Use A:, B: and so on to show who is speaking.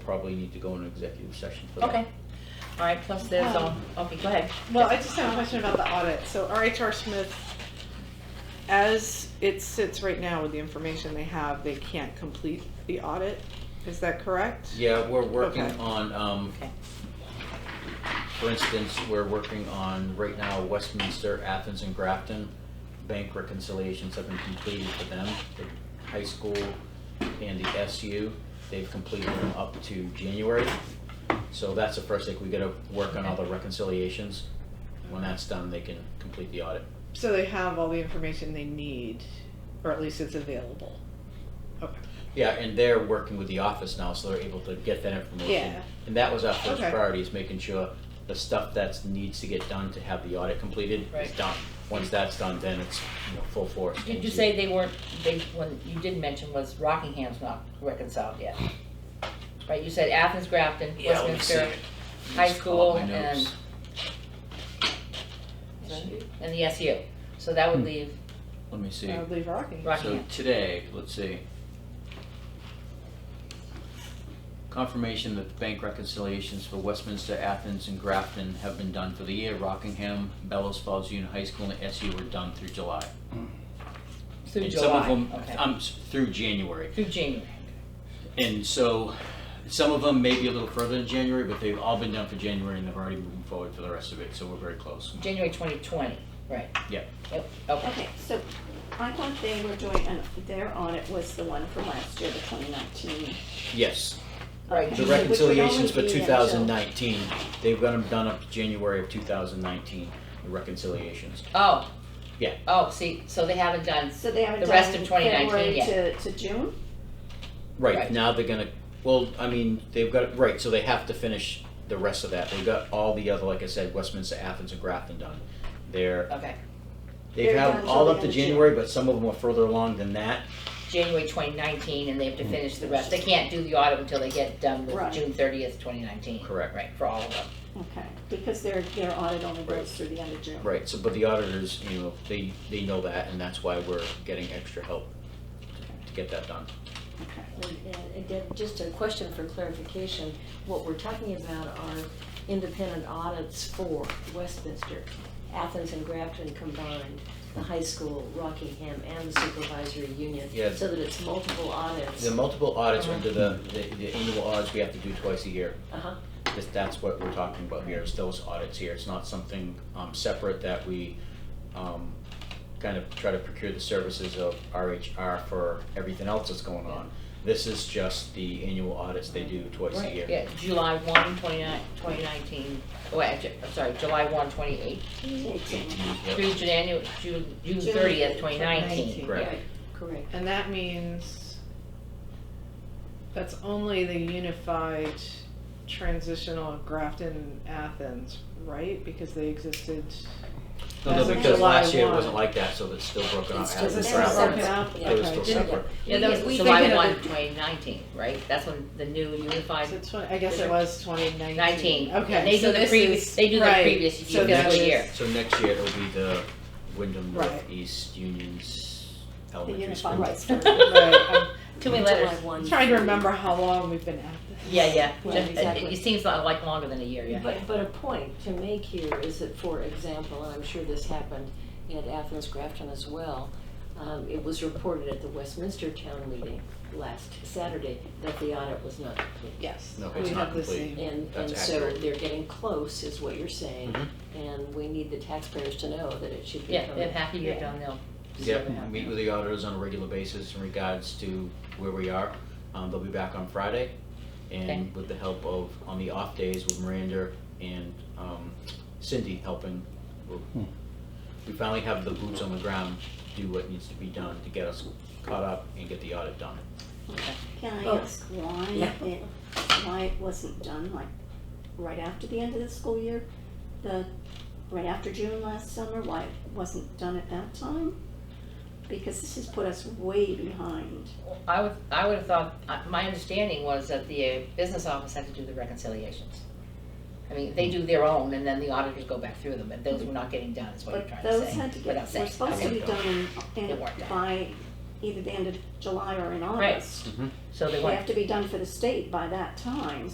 A: probably need to go into executive session for that.
B: Okay. All right, plus there's, um, okay, go ahead.
C: Well, I just have a question about the audit. So RHR Smith, as it sits right now with the information they have, they can't complete the audit. Is that correct?
A: Yeah, we're working
C: Okay.
A: on, um,
B: Okay.
A: for instance, we're working on right now Westminster, Athens and Grafton. Bank reconciliations have been completed for them, the high school and the SU. They've completed them up to January. So that's the first thing, we gotta work on all the reconciliations. When that's done, they can complete the audit.
C: So they have all the information they need, or at least it's available. Okay.
A: Yeah, and they're working with the office now, so they're able to get that information.
C: Yeah.
A: And that was our first
C: Okay.
A: priority, is making sure the stuff that's needs to get done to have the audit completed is
B: Right.
A: done. Once that's done, then it's, you know, full force.
B: Did you say they weren't, they, when you did mention was Rockingham's not reconciled yet? Right, you said Athens, Grafton,
A: Yeah, let me see
B: Westminster,
A: it.
B: High
A: Just pull up
B: School
A: my
B: and-
A: notes.
B: and the SU. So that
A: Hmm.
B: would leave
A: Let me see.
C: I would leave Rocky.
A: So
B: uh, Rockingham.
A: today, let's see. Confirmation that the bank reconciliations for Westminster, Athens, and Grafton have been done for the year. Rockingham, Bellows Falls Union High School, and SU were done through July.
B: through
A: And some of
B: July,
A: them,
B: okay.
A: um, s- through January.
B: Through January.
A: And so, some of them may be a little further than January, but they've all been done for January and they're already moving forward for the rest of it, so we're very close.
B: January twenty twenty, right?
A: Yeah.
B: Yep, okay.
D: Okay, so I thought they were doing, an- their audit was the one from last year, the 2019.
A: Yes,
B: Right,
A: the
D: Which would only
A: reconciliations for
D: be until-
A: 2019, they've got them done up to January of 2019, the reconciliations.
B: Oh.
A: Yeah.
B: Oh, see, so they haven't done,
D: So they haven't
B: The rest
D: done
B: of 2019
D: February
B: yet.
D: to, to June?
A: Right,
B: Right.
A: now they're gonna, well, I mean, they've got, right, so they have to finish the rest of that. They've got all the other, like I said, Westminster, Athens, and Grafton done. They're,
B: okay,
A: they've
D: They're
A: had
D: done
A: all
D: till
A: up to
D: the end of June.
A: January, but some of them are further along than that.
B: January twenty nineteen, and they have to
A: Hmm.
B: finish the rest. They can't do the audit until they get done
D: Right.
B: with June thirtieth, twenty nineteen.
A: Correct.
B: Right, for all of them.
D: Okay, because their, their audit only
A: Right.
D: goes through the end of June.
A: Right, so, but the auditors, you know, they, they know that, and that's why we're getting extra help to get that done.
D: Okay.
E: And and again, just a question for clarification, what we're talking about are independent audits for Westminster, Athens and Grafton combined, the high school, Rockingham, and the supervisory union.
A: Yeah.
E: So that it's multiple audits.
A: The multiple audits are under the, the the annual audits we have to do twice a year.
E: Uh-huh,
A: This- That's what we're talking about here, is those audits here. It's not something um, separate that we um, kind of try to procure the services of RHR for everything else that's going on. This is just the annual audits they do twice a
B: Right,
A: year.
B: Yeah, July one, twenty nine, twenty nineteen, oh, actually, I'm sorry, July one, twenty eight,
D: Eighteen.
A: Yep.
B: through January, June, June
D: June
B: thirtieth, twenty nineteen.
A: Correct.
E: right, correct.
C: And that means that's only the unified transitional Grafton Athens, right? Because they existed.
A: No, no,
C: As of
A: because last
C: July
A: year it
C: one.
A: wasn't like that, so it's still broken up.
E: It's
A: as
E: just-
A: a
E: it's
A: brown
E: separate.
A: audit.
C: out?
A: They were still
C: Okay.
E: Didn't-
A: separate.
B: Yeah, that was
C: We
B: July
C: thinking of
B: one,
C: it-
B: twenty nineteen, right? That's when the new unified,
C: So twen- I guess it was twenty nineteen.
B: Nineteen.
C: Okay.
B: And they
C: so
B: do the
C: this
B: previous-
C: is-
B: they do the
C: right.
B: previous
C: So
B: fiscal
C: that is-
B: year.
A: So next year it'll be the Wyndham
C: Right.
A: Northeast Union's
D: The
A: elementary
D: unified
A: school.
D: rights.
C: Right.
B: too many letters.
E: July one
C: I'm trying to
E: through-
C: remember how long we've been at this.
B: Yeah, yeah,
E: Right,
B: Just- it-
E: exactly.
B: it seems like like longer than a year, yeah.
E: But, but a point to make here is that, for example, and I'm sure this happened at Athens Grafton as well, um, it was reported at the Westminster Town Meeting last Saturday that the audit was not complete.
C: Yes.
A: No,
C: we
A: it's not
C: have the
A: complete.
B: Mm-hmm.
C: same.
E: And,
A: That's
E: and so
A: accurate.
E: they're getting close, is what you're saying,
A: Mhm.
E: and we need the taxpayers to know that it should be
B: Mm-hmm. Yeah,
E: coming.
B: if half a year
C: Yeah.
B: done, they'll. deserve it.
A: Yep, meet with the auditors on a regular basis in regards to where we are. Um, they'll be back on Friday.
B: Okay.
A: And with the help of, on the off days with Miranda and, um, Cindy helping, we'll- we finally have the boots on the ground, do what needs to be done to get us caught up and get the audit done.
D: Can I
E: Oh.
D: ask why
E: Yeah.
D: it, why it wasn't done like right after the end of the school year? The, right after June last summer, why it wasn't done at that time? Because this has put us way behind.
B: I would, I would have thought, uh, my understanding was that the uh, business office had to do the reconciliations. I mean, they do their own, and then the auditors go back through them, and those were not getting done, is what I'm
D: But
B: trying to say.
D: those had to
B: without
D: get, were
B: saying.
D: supposed to
B: Okay.
D: be done in,
B: It
D: in,
B: worked out.
D: by either the end of July or in
B: Right.
D: August.
A: Mhm.
B: So they
D: They
B: want
D: have to be done for the state by that time.